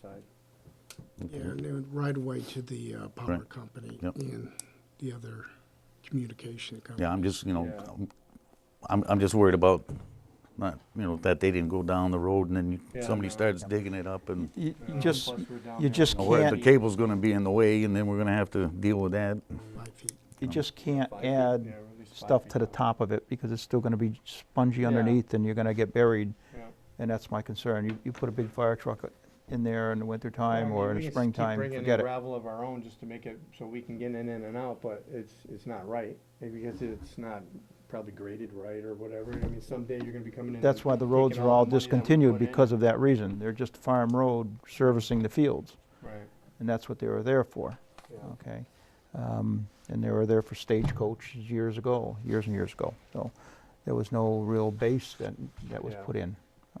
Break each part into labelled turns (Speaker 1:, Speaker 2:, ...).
Speaker 1: side.
Speaker 2: Yeah, and then right away to the uh, power
Speaker 3: Right.
Speaker 2: company
Speaker 3: Yep.
Speaker 2: and the other communication company.
Speaker 3: Yeah, I'm just, you know,
Speaker 1: Yeah.
Speaker 3: I'm- I'm, I'm just worried about not, you know, that they didn't go down the road and then you-
Speaker 1: Yeah,
Speaker 3: somebody
Speaker 1: no.
Speaker 3: starts digging it up and
Speaker 4: You you
Speaker 1: Uh,
Speaker 4: just,
Speaker 1: plus we're down
Speaker 4: you
Speaker 1: there.
Speaker 4: just
Speaker 3: you know, where the
Speaker 4: can't-
Speaker 3: cable's gonna be in the way and then we're gonna have to deal with that.
Speaker 2: Five feet.
Speaker 4: you just can't
Speaker 1: Five feet, yeah,
Speaker 4: add
Speaker 1: or at least five
Speaker 4: stuff
Speaker 1: feet
Speaker 4: to the
Speaker 1: down.
Speaker 4: top of it because it's still gonna be spongy
Speaker 1: Yeah.
Speaker 4: underneath and you're gonna get buried.
Speaker 1: Yeah.
Speaker 4: And that's my concern. You, you put a big fire truck in there in the wintertime
Speaker 1: Well, I
Speaker 4: or
Speaker 1: mean,
Speaker 4: in
Speaker 1: we can
Speaker 4: the
Speaker 1: just keep
Speaker 4: springtime,
Speaker 1: bringing in
Speaker 4: forget it.
Speaker 1: gravel of our own just to make it, so we can get in and in and out, but it's, it's not right. Maybe because it's not probably graded right or whatever. I mean, someday you're gonna be coming in.
Speaker 4: That's
Speaker 1: and
Speaker 4: why the
Speaker 1: taking
Speaker 4: roads are all
Speaker 1: the money that we
Speaker 4: discontinued
Speaker 1: put in.
Speaker 4: because of that reason. They're just farm road servicing the fields.
Speaker 1: Right,
Speaker 4: And that's what they were there for,
Speaker 1: yeah.
Speaker 4: okay? Um, And they were there for stagecoach years ago, years and years ago. So there was no real base that, that was
Speaker 1: Yeah.
Speaker 4: put in,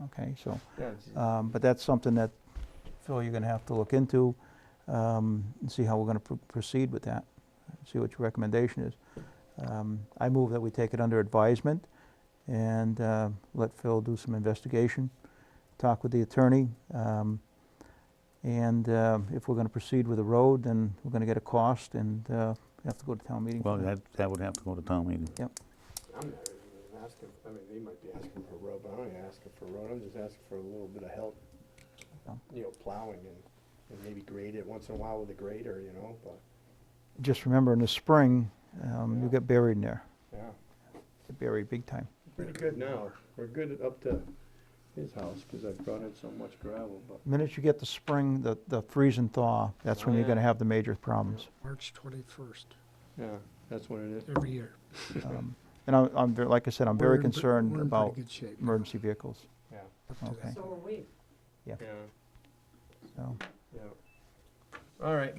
Speaker 4: okay? So
Speaker 1: Yeah, it's-
Speaker 4: Um, But that's something that, Phil, you're gonna have to look into, um, and see how we're gonna pr- proceed with that, see what your recommendation is. Um, I move that we take it under advisement and uh, let Phil do some investigation, talk with the attorney. um, And uh, if we're gonna proceed with the road, then we're gonna get a cost and uh, we have to go to town meeting. for
Speaker 3: Well, that, that would have to go to town meeting.
Speaker 1: I'm not even asking, I mean, they might be asking for a road, but I don't even asking for a road, I'm just asking for a little bit of help.
Speaker 4: Oh.
Speaker 1: You know, plowing and, and maybe grade it once in a while with a grader, you know, but,
Speaker 4: Just remember, in the spring, um, you
Speaker 1: Yeah.
Speaker 4: get buried in there,
Speaker 1: yeah.
Speaker 4: Get buried big time.
Speaker 1: Pretty good now, we're good up to his house, cause I've brought in so much gravel, but.
Speaker 4: Minute you get the spring, the, the freeze and thaw, that's when you're
Speaker 1: Yeah.
Speaker 4: gonna have the major problems.
Speaker 2: March 21st,
Speaker 1: Yeah, that's what it is.
Speaker 2: every year.
Speaker 4: Um, And I'm, I'm, ver- like I said, I'm
Speaker 2: We're
Speaker 4: very
Speaker 2: in pre-
Speaker 4: concerned
Speaker 2: we're in pretty
Speaker 4: about
Speaker 2: good shape
Speaker 4: emergency vehicles,
Speaker 1: Yeah,
Speaker 2: up to
Speaker 4: okay.
Speaker 2: that.
Speaker 5: So are we.
Speaker 1: yeah,
Speaker 4: so.
Speaker 1: yeah. All right.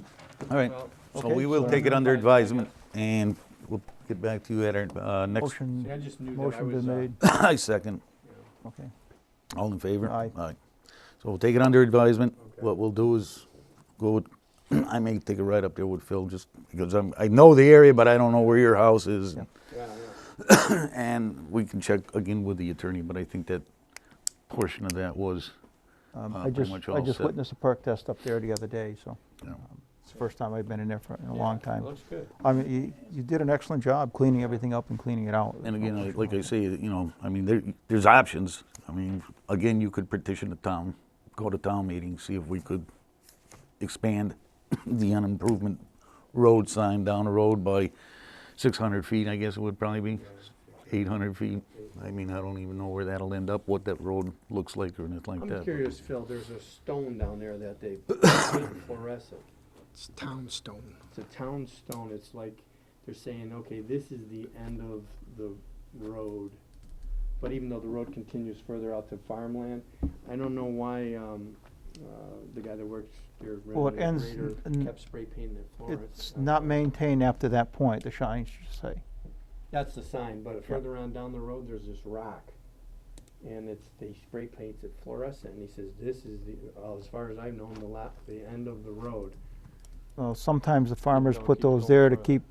Speaker 3: All right,
Speaker 1: well,
Speaker 3: so
Speaker 4: Okay,
Speaker 3: we will
Speaker 4: so-
Speaker 3: take it under advisement and we'll get back to you at our, uh, next,
Speaker 1: See, I
Speaker 4: Motion,
Speaker 1: just knew that I
Speaker 4: motion
Speaker 1: was,
Speaker 4: been
Speaker 1: uh,
Speaker 4: made,
Speaker 3: I second.
Speaker 1: you know,
Speaker 4: okay.
Speaker 3: All in favor?
Speaker 4: Aye.
Speaker 3: So we'll take it under advisement.
Speaker 1: Okay.
Speaker 3: What we'll do is go, with- I may take a ride up there with Phil just because I'm, I know the area, but I don't know where your house is.
Speaker 4: Yeah.
Speaker 1: Yeah, yeah,
Speaker 3: And we can check again with the attorney, but I think that portion of that was,
Speaker 4: Um,
Speaker 3: Uh,
Speaker 4: I
Speaker 3: pretty
Speaker 4: just,
Speaker 3: much
Speaker 4: I
Speaker 3: all
Speaker 4: just
Speaker 3: set.
Speaker 4: witnessed a perk test up there the other day, so um,
Speaker 3: you know,
Speaker 4: it's the first time I've been in there for, in a
Speaker 1: yeah,
Speaker 4: long time.
Speaker 1: Looks good.
Speaker 4: I mean, you, you did an excellent job cleaning everything up and cleaning it out.
Speaker 3: and again, I- like I say, you know, I mean, there, there's options. I mean, again, you could petition the town, go to town meeting, see if we could expand the unimprovement road sign down the road by six hundred feet, I guess it would probably be, eight hundred feet. I mean, I don't even know where that'll end up, what that road looks like or anything like
Speaker 1: I'm
Speaker 3: that.
Speaker 1: curious, Phil, there's a stone down there that they fluorescent.
Speaker 2: It's town stone.
Speaker 1: It's a town stone, it's like, they're saying, okay, this is the end of the road. But even though the road continues further out to farmland, I don't know why, um, uh, the guy that works there,
Speaker 4: Well, it
Speaker 1: Renee
Speaker 4: ends
Speaker 1: Rader,
Speaker 4: in-
Speaker 1: kept spray painting it Uh, Florence.
Speaker 4: It's
Speaker 1: I don't
Speaker 4: not
Speaker 1: know.
Speaker 4: maintained after that point, the sign should say.
Speaker 1: That's the sign, but further on down the road, there's this rock. And it's, they spray paints it fluorescent, and he says, this is the, uh, as far as I've known, the la- the end of the road,
Speaker 4: Well, sometimes the farmers
Speaker 1: going,
Speaker 4: put
Speaker 1: keep
Speaker 4: those
Speaker 1: going
Speaker 4: there to
Speaker 1: further.
Speaker 4: keep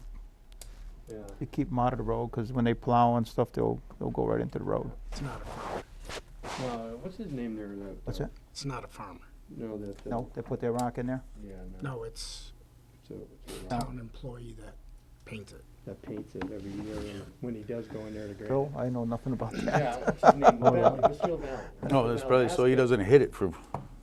Speaker 1: yeah.
Speaker 4: to keep them out of the road, because when they plow and stuff, they'll, they'll go right into the road.
Speaker 2: It's not a farmer.
Speaker 1: Uh, what's his name there, that?
Speaker 4: What's
Speaker 1: uh,
Speaker 4: that?
Speaker 2: It's not a farmer.
Speaker 1: No, that. uh,
Speaker 4: No, they put their rock in there?
Speaker 1: Yeah, no.
Speaker 2: No, it's
Speaker 1: So, it's a
Speaker 4: No.
Speaker 1: rock
Speaker 2: town employee that paints it.
Speaker 1: that paints it every year, and when he does go in there to grade.
Speaker 4: Phil, I know nothing about that.
Speaker 1: Yeah, what's his name, Valley, Mr. Valley.
Speaker 3: No, that's
Speaker 1: Mr.
Speaker 3: probably, so
Speaker 1: Valley.
Speaker 3: he doesn't hit it from,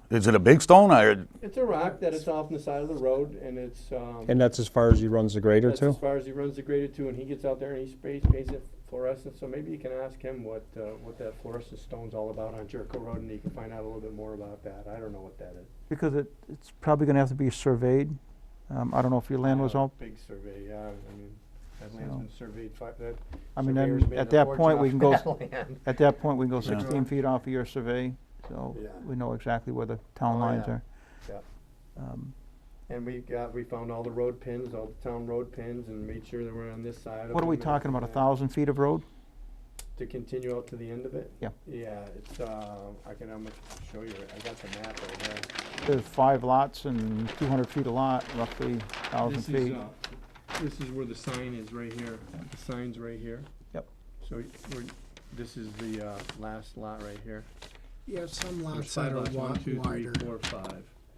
Speaker 3: is it a big stone or?
Speaker 1: It's a rock that is off on the side of the road, and it's, um.
Speaker 6: And that's as far as he runs the grader
Speaker 1: That's as
Speaker 6: too?
Speaker 1: far as he runs the grader too, and he gets out there and he sprays, paints it fluorescent, so maybe you can ask him what, uh, what that fluorescent stone's all about on Jericho Road, and you can find out a little bit more about that, I don't know what that is.
Speaker 4: Because it, it's probably gonna have to be surveyed. Um, I don't know if your land was
Speaker 1: Uh,
Speaker 4: all,
Speaker 1: Big survey, yeah, I mean, that land's
Speaker 4: So-
Speaker 1: been surveyed five, that.
Speaker 4: I mean,
Speaker 1: surveyor's
Speaker 4: then
Speaker 1: made
Speaker 4: at
Speaker 1: a
Speaker 4: that
Speaker 1: fortune
Speaker 4: point, we
Speaker 1: off
Speaker 4: can go,
Speaker 1: that
Speaker 4: s-
Speaker 1: land.
Speaker 4: at that point, we can go
Speaker 3: Yeah.
Speaker 4: sixteen feet off of your survey, so
Speaker 1: Yeah.
Speaker 4: we know exactly where the town
Speaker 1: Oh,
Speaker 4: lines
Speaker 1: yeah.
Speaker 4: are.
Speaker 1: Yeah.
Speaker 4: Um,
Speaker 1: And we got, we found all the road pins, all the town road pins, and made sure that we're on this side of
Speaker 4: What are we
Speaker 1: them and
Speaker 4: talking about, a
Speaker 1: everything.
Speaker 4: thousand feet of road?
Speaker 1: To continue out to the end of it?
Speaker 4: Yeah.
Speaker 1: Yeah, it's, uh, I can, I'm gonna show you, it. I got the map right here.
Speaker 4: There's five lots and two hundred feet a lot, roughly thousand
Speaker 1: This is,
Speaker 4: feet.
Speaker 1: uh, This is where the sign is, right here. The sign's right here.
Speaker 4: Yep.
Speaker 1: So y- we're, this is the uh, last lot right here.
Speaker 2: Yeah, some
Speaker 1: There's
Speaker 2: lots that
Speaker 1: five
Speaker 2: are
Speaker 1: lots,
Speaker 2: wa-
Speaker 1: one, two, three,
Speaker 2: wider.
Speaker 1: four, five.